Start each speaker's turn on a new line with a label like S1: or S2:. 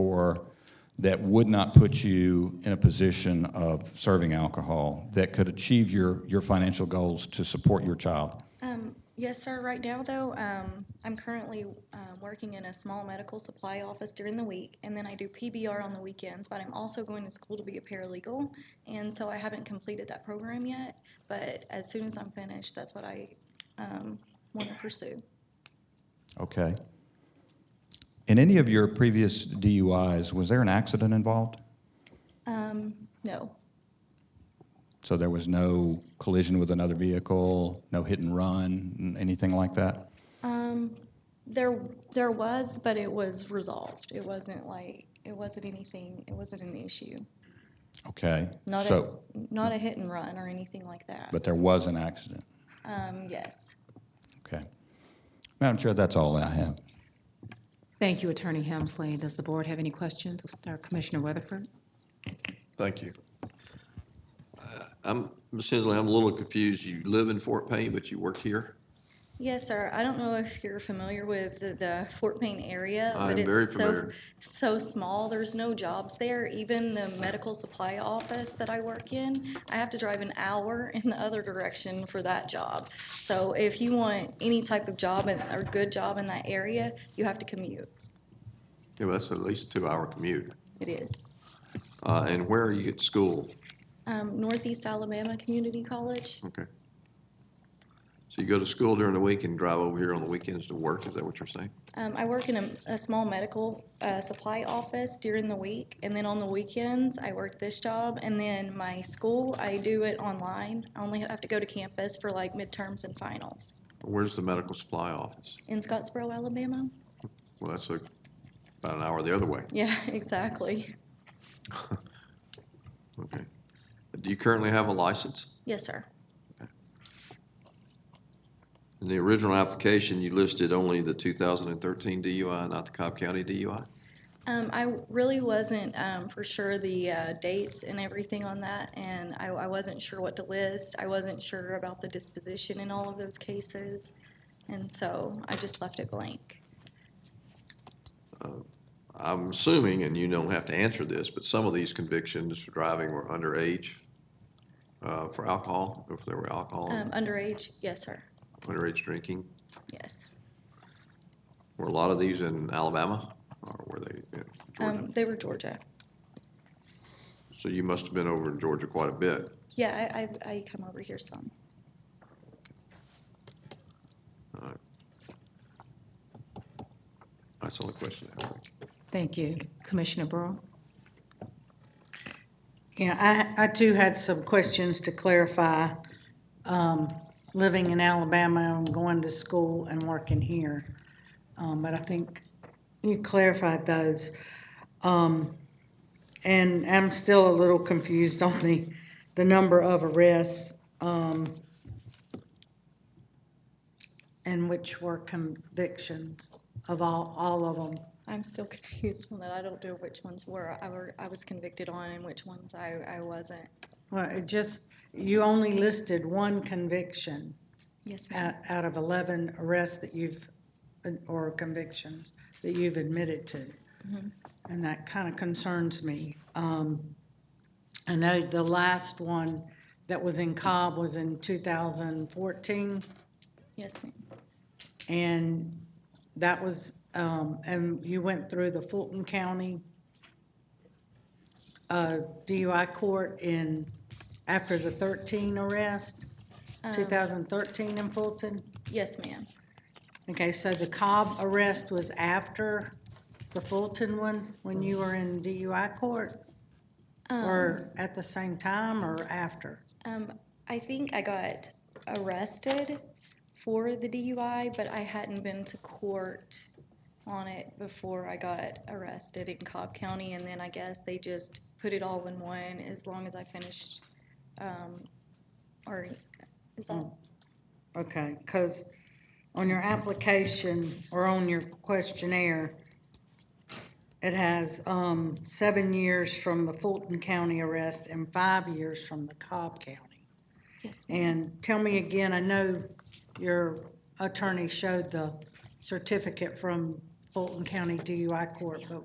S1: for that would not put you in a position of serving alcohol that could achieve your, your financial goals to support your child?
S2: Um, yes, sir. Right now, though, um, I'm currently uh, working in a small medical supply office during the week, and then I do PBR on the weekends. But I'm also going to school to be a paralegal, and so I haven't completed that program yet. But as soon as I'm finished, that's what I um, want to pursue.
S1: Okay. In any of your previous DUIs, was there an accident involved?
S2: Um, no,
S1: So there was no collision with another vehicle, no hit and run, n- anything like that?
S2: um, there there was, but it was resolved. It wasn't like it wasn't anything. It wasn't an issue.
S1: Okay.
S2: Not
S1: So,
S2: a not a hit and run or anything like that.
S1: but there was an accident.
S2: um, yes.
S1: Okay. Madam Chair, that's all I have.
S3: Thank you, Attorney Helmsley. Does the board have any questions? Let's start Commissioner Weatherford.
S4: Thank you. Uh, I'm, Ms. Hensley, I'm a little confused. You live in Fort Payne, but you work here?
S2: Yes, sir. I don't know if you're familiar with the- the Fort Payne area,
S4: I
S2: but
S4: am very
S2: it's so,
S4: familiar.
S2: so small. There's no jobs there. Even the medical supply office that I work in, I have to drive an hour in the other direction for that job. So if you want any type of job and, or good job in that area, you have to commute.
S4: Yeah, well, that's at least a two-hour commute.
S2: It is.
S4: Uh, And where are you at school?
S2: Um, Northeast Alabama Community College?
S4: Okay. So you go to school during the week and drive over here on the weekends to work, is that what you're saying?
S2: Um, I work in a, a small medical uh, supply office during the week, and then on the weekends, I work this job. And then my school, I do it online. I only have to go to campus for like midterms and finals
S4: Where's the medical supply office?
S2: in Scottsboro, Alabama.
S4: Well, that's like about an hour the other way.
S2: Yeah, exactly.
S4: Okay. Do you currently have a license?
S2: Yes, sir.
S4: In the original application, you listed only the 2013 DUI, not the Cobb County DUI?
S2: Um, I really wasn't um, for sure the uh, dates and everything on that, and I, I wasn't sure what to list. I wasn't sure about the disposition in all of those cases, and so I just left it blank.
S4: I'm assuming, and you don't have to answer this, but some of these convictions for driving were underage uh, for alcohol, if there were alcohol,
S2: Um, underage? Yes, sir.
S4: underage drinking.
S2: Yes.
S4: Were a lot of these in Alabama, or were they in Georgia?
S2: Um, they were Georgia.
S4: So you must have been over in Georgia quite a bit.
S2: Yeah, I, I, I come over here some.
S4: That's the only question I have.
S3: Thank you. Commissioner Burrow?
S5: Yeah, I, I too had some questions to clarify. Um, Living in Alabama and going to school and working here. Um, But I think you clarified those. Um, And I'm still a little confused on the, the number of arrests um, and which were convictions of all, all of them.
S2: I'm still confused on that. I don't know which ones were, I were, I was convicted on and which ones I, I wasn't.
S5: Well, it just, you only listed one conviction.
S2: Yes, ma'am.
S5: out, out of 11 arrests that you've, or convictions that you've admitted to. And that kind of concerns me. Um, I know the last one that was in Cobb was in 2014,
S2: Yes, ma'am.
S5: and that was, um, and you went through the Fulton County uh, DUI court in, after the 13 arrest, 2013 in Fulton?
S2: Yes, ma'am.
S5: Okay, so the Cobb arrest was after the Fulton one, when you were in DUI court? Or at the same time or after?
S2: Um, I think I got arrested for the DUI, but I hadn't been to court on it before I got arrested in Cobb County, and then I guess they just put it all in one as long as I finished, um, or, is that?
S5: Okay, because on your application or on your questionnaire, it has um, seven years from the Fulton County arrest and five years from the Cobb County.
S2: Yes, ma'am.
S5: And tell me again, I know your attorney showed the certificate from Fulton County DUI court, but